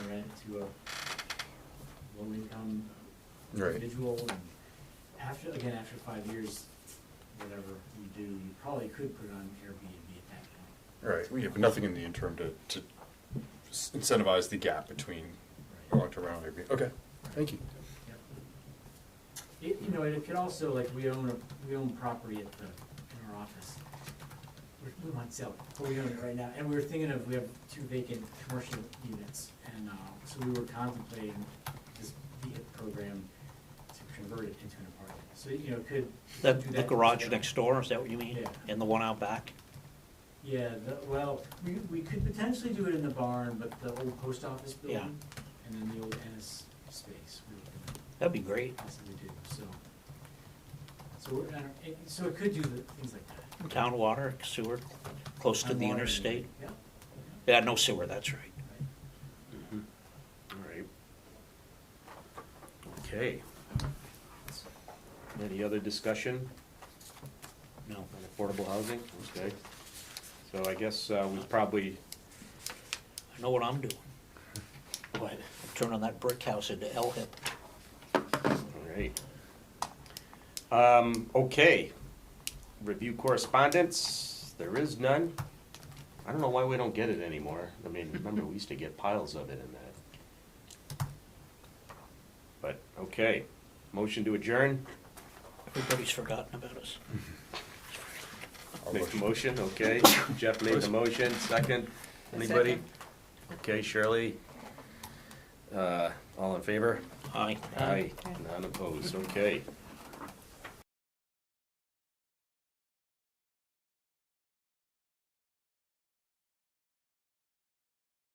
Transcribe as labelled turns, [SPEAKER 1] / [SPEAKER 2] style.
[SPEAKER 1] to a low-income
[SPEAKER 2] Right.
[SPEAKER 1] individual. and After, again, after five years, whatever you do, you probably could put it on Airbnb at that point.
[SPEAKER 2] Right, we have nothing in the interim to, to incentivize the gap between
[SPEAKER 1] Right.
[SPEAKER 2] long-term rental and Airbnb. Okay, thank you.
[SPEAKER 1] Yep. It, you know, and it could also, like, we own a, we own property at the, in our office. We're- We might sell, it, but we own it right now, and we were thinking of, we have two vacant commercial units, and, uh, so we were contemplating this VIA program to convert it into an apartment, so, you know, could.
[SPEAKER 3] The,
[SPEAKER 1] do
[SPEAKER 3] the
[SPEAKER 1] that
[SPEAKER 3] garage
[SPEAKER 1] together.
[SPEAKER 3] next door, is that what you mean?
[SPEAKER 1] Yeah.
[SPEAKER 3] And the one out back?
[SPEAKER 1] Yeah, the, well, we, we could potentially do it in the barn, but the old post office building, and then the old Ennis space, we were gonna
[SPEAKER 3] That'd be great.
[SPEAKER 1] possibly do, so. So, we're- and it- so it could do the, things like that.
[SPEAKER 3] Town water, sewer, close to
[SPEAKER 1] I'm
[SPEAKER 3] the
[SPEAKER 1] wondering-
[SPEAKER 3] interstate.
[SPEAKER 1] Yeah.
[SPEAKER 3] Yeah, no sewer, that's right.
[SPEAKER 1] right.
[SPEAKER 4] Alright. Okay. Any other discussion
[SPEAKER 3] No.
[SPEAKER 4] on affordable housing? Okay. So I guess uh, we probably,
[SPEAKER 3] I know what I'm doing. What? Turning that brick house into L-hip.
[SPEAKER 4] alright. Um, okay. Review correspondence, there is none. I don't know why we don't get it anymore. I mean, remember, we used to get piles of it in that. But, okay. Motion to adjourn?
[SPEAKER 3] Everybody's forgotten about us.
[SPEAKER 2] I'll
[SPEAKER 4] Make
[SPEAKER 2] motion.
[SPEAKER 4] the motion, okay. Jeff made the motion, second. Anybody?
[SPEAKER 5] Second.
[SPEAKER 4] Okay, Shirley. Uh, all in favor?
[SPEAKER 3] Aye.
[SPEAKER 4] Aye. None opposed, okay.